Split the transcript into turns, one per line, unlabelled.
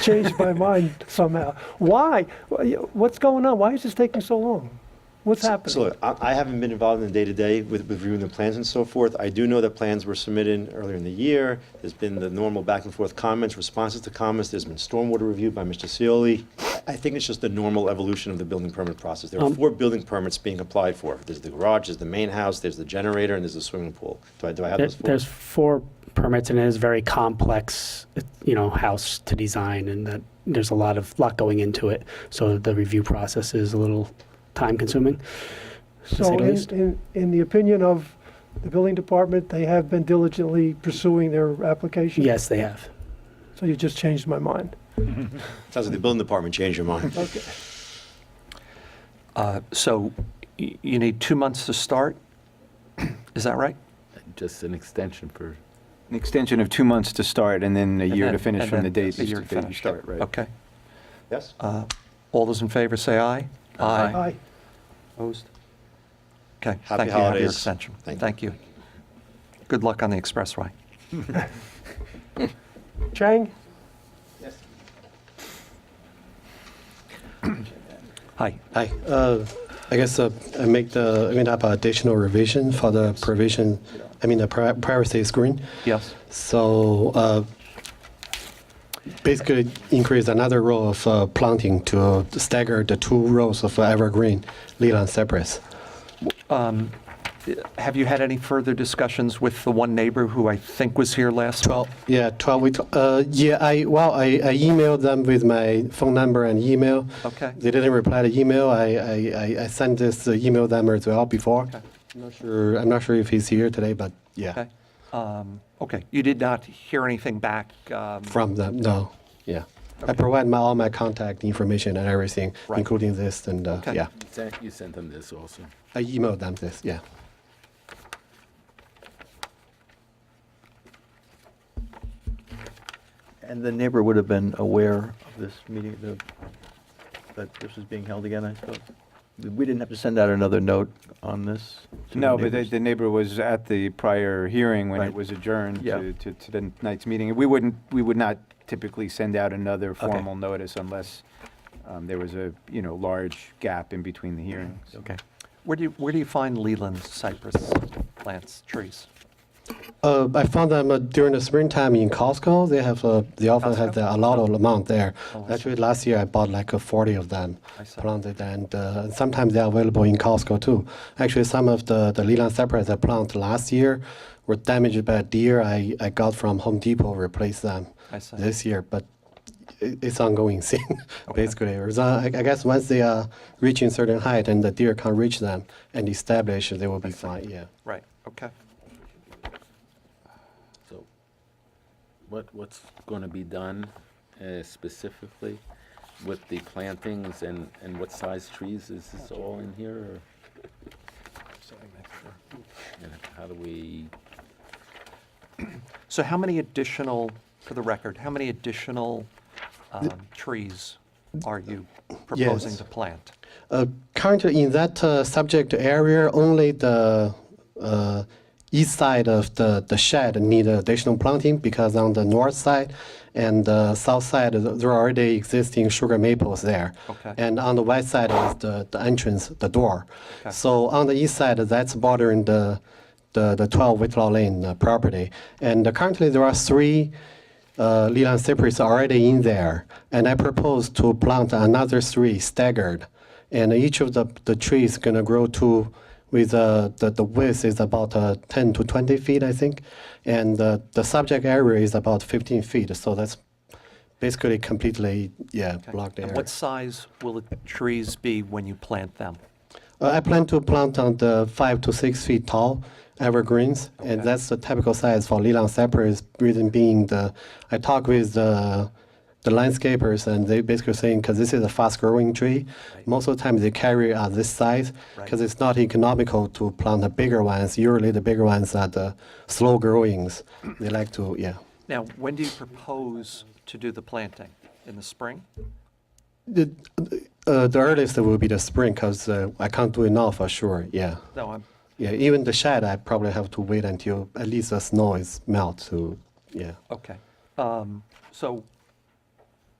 changed my mind somehow. Why? What's going on? Why is this taking so long? What's
So-
happening?
So look, I I haven't been involved in the day-to-day with with reviewing the plans and so forth. I do know that plans were submitted earlier in the year. There's been the normal back and forth comments, responses to comments. There's been stormwater review by Mr. Cioli. I I think it's just the normal evolution of the building permit process. There are four building permits being applied for. There's the garage, there's the main house, there's the generator, and there's the swimming pool. Do I, do I have
There-
those four?
There's four permits, and it is very complex, you know, house to design, and that, there's a lot of, lot going into it. So the review process is a little time-consuming.
So
say the
in-
least.
in, in the opinion of the building department, they have been diligently pursuing their application?
Yes, they have.
So you just changed my mind.
Sounds like the building department changed your mind.
Okay.
Uh, So y- you need two months to start? Is that right?
Just an extension for,
An extension of two months to start and then a
And
year
then-
to finish
and
from the
then
date
a year to
that you
finish.
start, right?
Okay.
Yes?
Uh, All those in favor, say aye.
Aye.
Opposed? Okay,
Happy
thank you. Have your
holidays.
extension.
Thank you.
Thank you. Good luck on the expressway.
Chang?
Hi.
Hi. Uh, I guess uh, I make the, I made up additional revision for the provision, I mean, the pri- privacy screen.
Yes.
So uh, basically increase another row of uh, planting to stagger the two rows of evergreen Leland cypress.
Um, Have you had any further discussions with the one neighbor who I think was here last?
Well, yeah, 12, we, t- uh, yeah, I, well, I, I emailed them with my phone number and email.
Okay.
They didn't reply to email. I, I, I- I sent this uh, email them as well before.
Okay.
I'm not sure, I'm not sure if he's here today, but yeah,
Okay. Um, Okay, you did not hear anything back? um,
from them, no, yeah. I provide my, all my contact information and everything,
Right.
including this and, uh,
Okay.
yeah.
you sent, you sent them this also.
I emailed them this, yeah.
And the neighbor would have been aware of this meeting, the- that this was being held again, I suppose? We didn't have to send out another note on this? to
No, but
the
the-
neighbors?
the neighbor was at the prior hearing when it
Right.
was adjourned
Yeah.
to to- to the night's meeting. We wouldn't, we would not typically send out another formal notice unless um, there was a, you know, large gap in between the hearings.
Okay. Where do you, where do you find Leland cypress plants, trees?
Uh, I found them uh, during the springtime in Costco. They have uh, they often have the, a lot of amount there.
Oh, I see.
Actually, last year I bought like uh, 40 of them
I see.
planted, and uh, sometimes they're available in Costco too. Actually, some of the the Leland cypress I planted last year were damaged by a deer. I, I got from Home Depot replaced them
I see.
this year, but it, it's ongoing thing basically. It's, uh, I, I guess once they are reaching certain height and the deer can't reach them and establish, they will be fine. Yeah.
Right, okay.
So what, what's going to be done uh, specifically with the plantings and, and what size trees? Is this all in here or? And how do we,
So how many additional, for the record, how many additional um, trees are you proposing
Yes.
to plant?
Uh, Currently, in that uh, subject area, only the uh, east side of the the shed need additional planting because on the north side and the south side, th- there are already existing sugar maples there.
Okay.
And on the west side is the the entrance, the door.
Okay.
So on the east side, that's bordering the the the 12 Whitlaw Lane uh, property. And uh, currently, there are three uh, Leland cypress already in there, and I propose to plant another three staggered, and each of the, the trees gonna grow to with uh, the the width is about uh, 10 to 20 feet, I think, and uh, the subject area is about 15 feet, so that's basically completely yeah
Okay.
blocked area.
And what size will the trees be when you plant them?
Uh, I plan to plant on the five to six feet tall evergreens, and that's the typical size for Leland cypress. Reason being, the I talk with the the landscapers, and they basically saying because this is a fast-growing tree, most of the time they carry are this size because it's not economical to plant the bigger ones. Usually, the bigger ones are the slow growings. they like to yeah.
Now, when do you propose to do the planting? In the spring?
The, uh, the earliest will be the spring because uh, I can't do it now for sure. Yeah.
No, I'm,
Yeah, even the shed, I probably have to wait until at least the snow is melt to, yeah.
okay. Um, So